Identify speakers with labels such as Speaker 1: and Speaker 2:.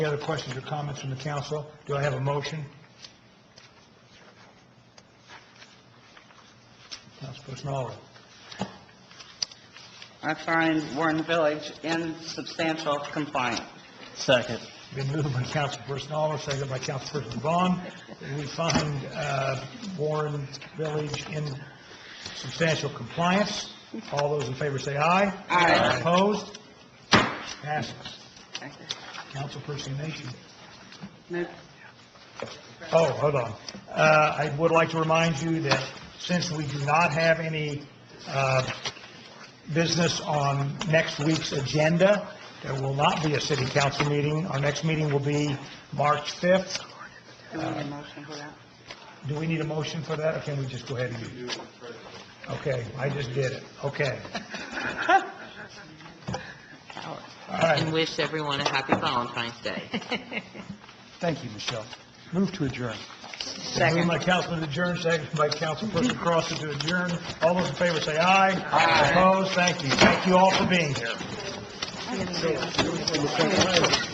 Speaker 1: Any other questions or comments from the council? Do I have a motion? Councilperson Oliver.
Speaker 2: I find Warren Village in substantial compliance.
Speaker 3: Second.
Speaker 1: Been moved by Councilperson Oliver, seconded by Councilperson Vaughn. We find uh, Warren Village in substantial compliance. All those in favor say aye.
Speaker 2: Aye.
Speaker 1: Opposed? Passes. Councilperson Nation.
Speaker 2: Move-
Speaker 1: Oh, hold on. Uh, I would like to remind you that since we do not have any uh, business on next week's agenda, there will not be a city council meeting. Our next meeting will be March 5th.
Speaker 2: Do we need a motion for that?
Speaker 1: Do we need a motion for that, or can we just go ahead and do it? Okay, I just did it. Okay. All
Speaker 4: and
Speaker 1: right.
Speaker 4: wish everyone a happy Valentine's Day.
Speaker 1: Thank you, Michelle. Move to adjourn.
Speaker 2: Second.
Speaker 1: Moved by Councilman adjourn, second by Councilperson Cross to adjourn. All those in favor say aye.
Speaker 2: Aye.
Speaker 1: Opposed? Thank you. Thank you all for being here.